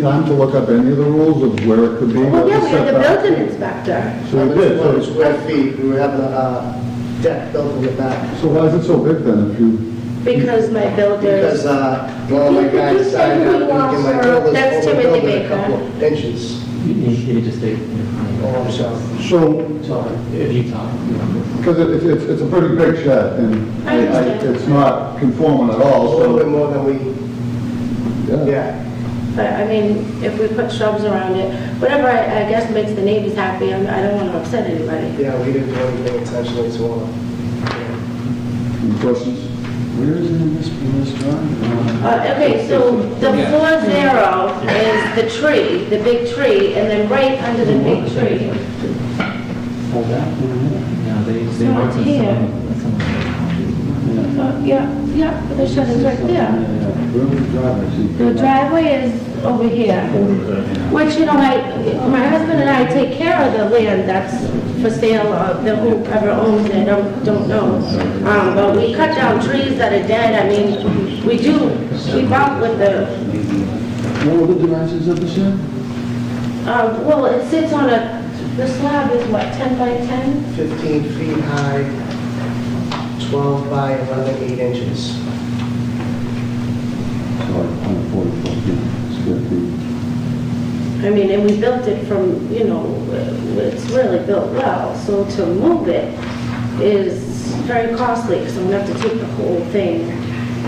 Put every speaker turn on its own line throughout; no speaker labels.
time to look up any of the rules of where it could be.
Well,
what
yeah, we had the
setback.
building inspector.
So we did,
Another
so,
Square feet, we have a uh, deck built in the back.
so why is it so big then if you?
Because my
Because,
builders,
uh, one of my guys decided not to give my builders
That's
over
Timothy
building
Baker.
a couple of inches.
You need to stay.
Oh, so,
So,
Sorry, if you talk.
because it's, it's, it's a pretty big shed and
I
I- I-
understand.
it's not conforming at
a
all,
little bit
so.
more than we, yeah.
but I mean, if we put shrubs around it, whatever, I I guess makes the neighbors happy, I'm- I don't want to upset anybody.
Yeah, we didn't do anything intentionally to want
Any questions?
Where is it in this, in this drawing? Uh,
Uh, Okay, so the four zero is the tree, the big tree, and then right under the big tree.
Hold that one in.
No, they,
It's
they
not
want some,
here.
someone, someone.
Yeah.
Uh, Yeah, yeah, but the shed is right there.
Yeah, Where was the driveway? See,
The driveway is over here, which, you know, I, my husband and I take care of the land that's for sale, or the whoever owns it, I don't, don't know. Um, but we cut down trees that are dead, I mean, we do, we bump with the,
What were the dimensions of the shed?
um, well, it sits on a, the slab is what, ten by ten?
15 feet high, 12 by 11, 8 inches.
It's like 144 feet, square feet.
I mean, and we built it from, you know, it's really built well, so to move it is very costly, because I'm gonna have to take the whole thing,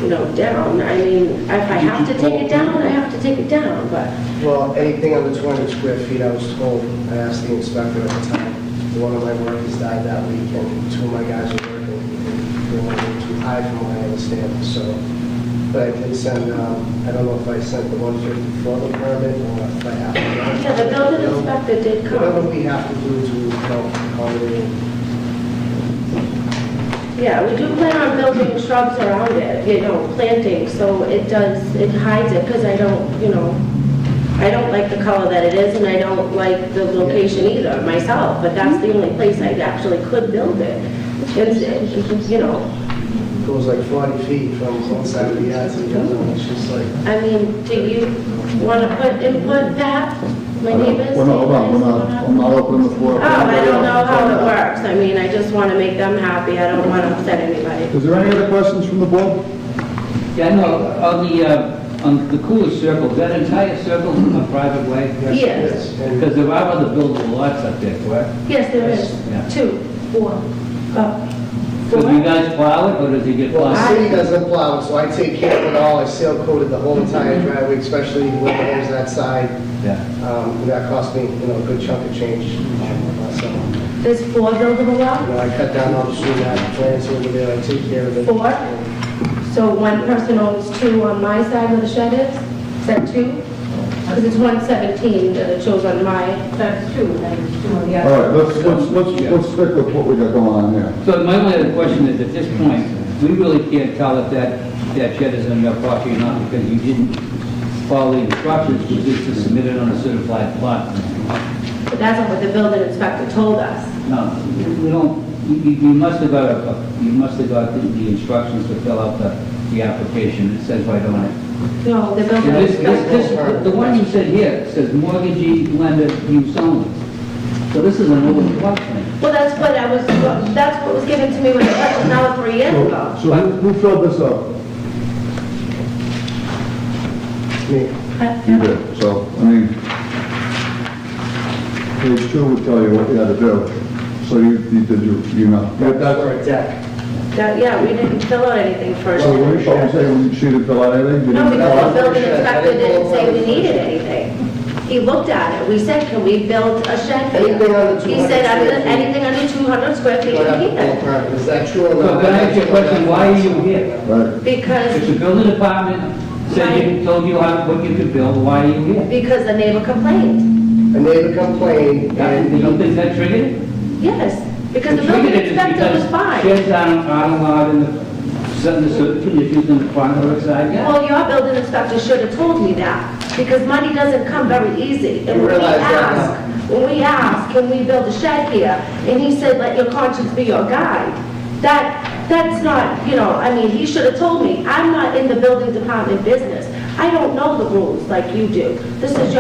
you know, down. I mean, if I have to take it down, I have to take it down, but,
Well, anything under 200 square feet, I was told, I asked the inspector at the time, one of my workers died that week, and two of my guys were working, and they were too high from what I understand, so, but I did send, um, I don't know if I sent the 150 photo permit, or if I have to.
yeah, the building inspector did
Whatever
come.
we have to do to help accommodate
Yeah, we do plan on building shrubs around it, you know, planting, so it does, it hides it, because I don't, you know, I don't like the color that it is, and I don't like the location either myself, but that's the only place I actually could build it. It's, you know,
It goes like 40 feet from one side of the yard to the other, and it's just like,
I mean, do you want to put input that, my neighbors?
Well, no, hold on, we're not, I'm not opening the floor.
Oh, I don't know how it works, I mean, I just want to make them happy, I don't want to upset anybody.
Is there any other questions from the board?
Yeah, no, on the, uh, on the cooler circle, that entire circle is a private way?
Yes.
and
Because there are other buildable lots up there, correct?
Yes, there is,
Yeah.
two, four, uh,
So do
four.
you guys plow it, or does it get
Well, the
plowed?
city doesn't plow, so I take care of it all, I seal coated the whole entire driveway, especially when it ends that side.
Yeah.
Um, That cost me, you know, a good chunk of change. Um, So, you
There's four buildable lots,
know, I cut down all the tree that plants over there, I take care of it.
Four? so one person owns two on my side where the shed is, is that two? Because it's 117 that it shows on my. That's two, and then two on the
All right, let's, let's, let's, let's stick with what we got going on here.
So my only other question is, at this point, we really can't tell if that, that shed is on your property or not, because you didn't follow the instructions, which is to submit it on a certified plot.
But that's not what the building inspector told us.
No, we don't, you, you you must have got, a- you must have got the- the instructions to fill out the, the application, it says right on it.
No, the
Yeah,
building
This, this,
inspector.
this, the- the one you said here says mortgagee lender use only. So this is an old plot plan.
Well, that's what I was, that's what was given to me when I left, and that was three years ago.
So who who filled this up?
Me.
You did, so, I mean, page two would tell you what you had to do. So you, you did your, you know. you had that-
Or a deck.
That- Yeah, we didn't fill out anything first.
So what you should say, when she didn't fill out anything, you
No,
didn't fill out?
because the building inspector didn't say we needed anything. He looked at it, we said, can we build a shed? for you?"
Anything under
He said,
200
under-
square feet.
anything under 200 square feet,
Do I have
you
to pull a
can.
permit? Is that true or
So
not?
can I ask you a question, why are you here?
Right,
If
Because,
the building department said you, told you how, what you could build, why are you here?
because the neighbor complained.
A neighbor complained,
That-
and
You don't
he-
think that triggered it?
Yes, because the
It
building
triggered it is
inspector was
because um,
fine.
Sheds aren't, aren't allowed in the, certain certain conditions in the front or side yard.
Well, your building inspector should have told me that, because money doesn't come very easy. And when we
realize that now.
ask, when we ask, can we build a shed here? And he said, let your conscience be your guide. That, that's not, you know, I mean, he should have told me, I'm not in the building department business. I don't know the rules like you do. This is your